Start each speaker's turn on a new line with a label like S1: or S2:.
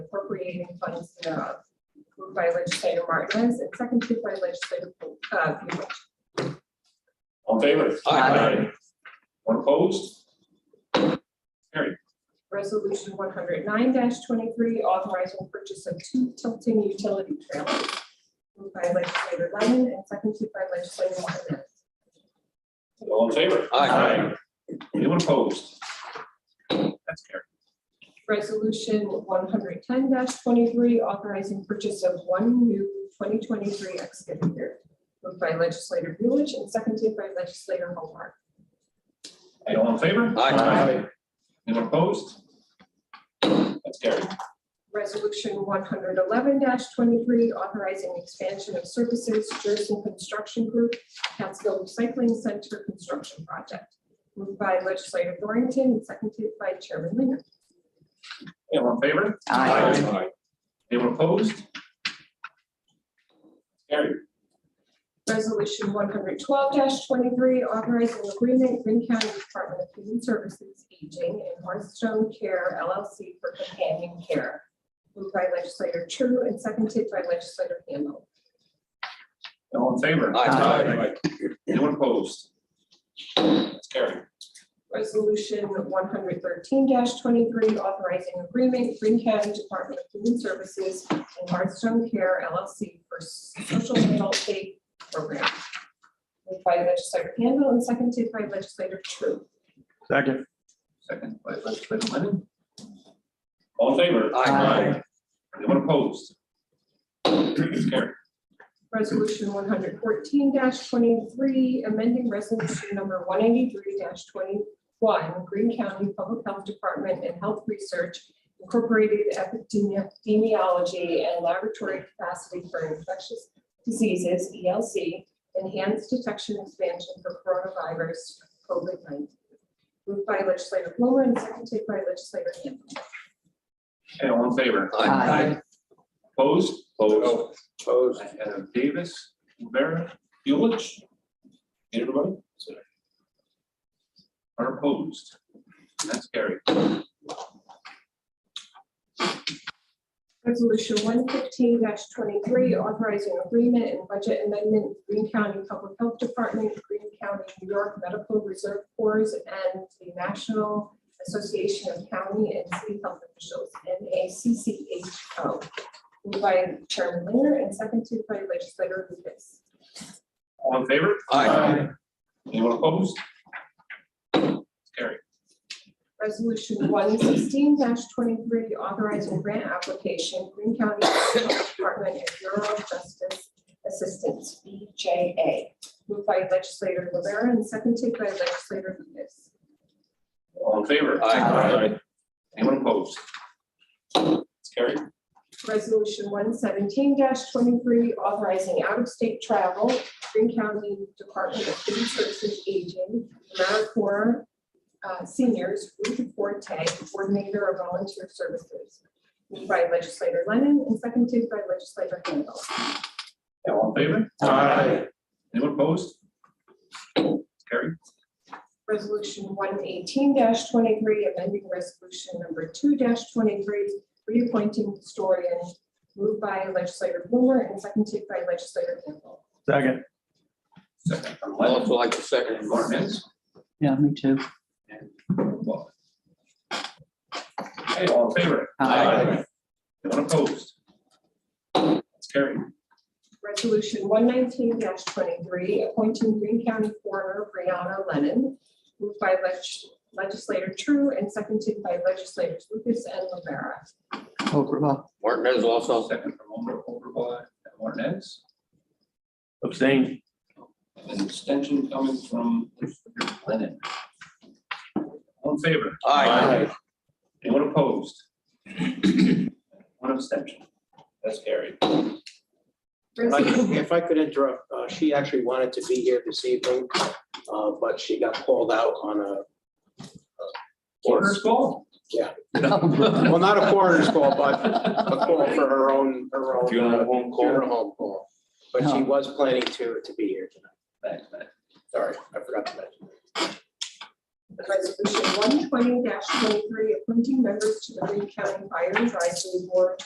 S1: appropriating funds thereof. Moved by legislator Martinez and seconded by legislator, uh, Buich.
S2: All in favor?
S3: Aye.
S2: One opposed? Carry.
S1: Resolution one hundred nine twenty-three, authorizing purchase of two tilting utility trailers. Moved by legislator Lemon and seconded by legislator Martinez.
S2: All in favor?
S3: Aye.
S2: Anyone opposed? That's carried.
S1: Resolution one hundred ten twenty-three, authorizing purchase of one new twenty twenty-three excavator. Moved by legislator Buich and seconded by legislator Hobart.
S2: Hey, All in favor?
S3: Aye. Aye.
S2: Anyone opposed? That's carried.
S1: Resolution one hundred eleven twenty-three, authorizing expansion of services, Jersey Construction Group, Catskill Recycling Center Construction Project. Moved by legislator Dorrington and seconded by Chairman Linger.
S2: Hey, All in favor?
S3: Aye.
S2: Anyone opposed? Carried.
S1: Resolution one hundred twelve twenty-three, authorizing agreement, Green County Department of Human Services, Aging and Hearthstone Care LLC for companion care. Moved by legislator True and seconded by legislator Handel.
S2: All in favor?
S3: Aye.
S2: Anyone opposed? That's carried.
S1: Resolution one hundred thirteen twenty-three, authorizing agreement, Green County Department of Human Services and Hearthstone Care LLC for social adult aid program. Moved by legislator Handel and seconded by legislator True.
S4: Second.
S2: Second by legislator Lennon. All in favor?
S3: Aye.
S2: Anyone opposed? That's carried.
S1: Resolution one hundred fourteen twenty-three, amending resolution number one eighty-three twenty-one, Green County Public Health Department and Health Research Incorporated Epidemiology and Laboratory Capacity for Infectious Diseases, ELC, Enhanced Detection Expansion for Coronavirus COVID nineteen. Moved by legislator Blumer and seconded by legislator Campbell.
S2: Hey, all in favor?
S3: Aye.
S2: Opposed?
S3: Opposed.
S2: I have Davis, Rivera, Buelich. Everybody? Are opposed. That's carried.
S1: Resolution one fifteen twenty-three, authorizing agreement and budget amendment, Green County Public Health Department, Green County, New York Medical Reserve Corps, and the National Association of County and City Health Officials, NACCHO. Moved by Chairman Linger and seconded by legislator Lucas.
S2: All in favor?
S3: Aye.
S2: Anyone opposed? Carry.
S1: Resolution one sixteen twenty-three, authorizing grant application, Green County Department and Bureau of Justice Assistance, BJA. Moved by legislator Rivera and seconded by legislator Lucas.
S2: All in favor?
S3: Aye.
S2: Anyone opposed? Carry.
S1: Resolution one seventeen twenty-three, authorizing out-of-state travel, Green County Department of Human Services Aging, AmeriCorps uh, Seniors, Ruth Forte, Coordinator of Volunteer Services. Moved by legislator Lennon and seconded by legislator Handel.
S2: All in favor?
S3: Aye.
S2: Anyone opposed? Carry.
S1: Resolution one eighteen twenty-three, amending resolution number two twenty-three, reappointing historian, moved by legislator Blumer and seconded by legislator Campbell.
S4: Second.
S2: Second from
S3: I'd
S2: Lennon.
S3: also like to second
S2: And Martinez.
S5: Yeah, me too.
S2: Hey, all in favor?
S3: Aye.
S2: Anyone opposed? Carry.
S1: Resolution one nineteen twenty-three, appointing Green County Coroner Brianna Lennon, moved by leg- legislator True and seconded by legislators Lucas and Rivera.
S5: Overall,
S3: Martinez also.
S2: Second from Omer, Overblock, and Martinez.
S4: Abstain.
S2: An extension coming from Lennon. All in favor?
S3: Aye.
S2: Anyone opposed? One abstention. That's carried.
S6: If I could-
S1: Resolution-
S6: If I could interrupt, uh, she actually wanted to be here this evening, uh, but she got called out on a,
S2: Order's call?
S6: Yeah. well, not a coroner's call, but a call for her own, her own. uh,
S3: Funeral home call.
S6: funeral home call. But she was planning to, to be here tonight.
S2: Thanks, man.
S6: Sorry, I forgot to mention.
S1: Resolution one twenty twenty-three, appointing members to the Green County Fire Advisory Board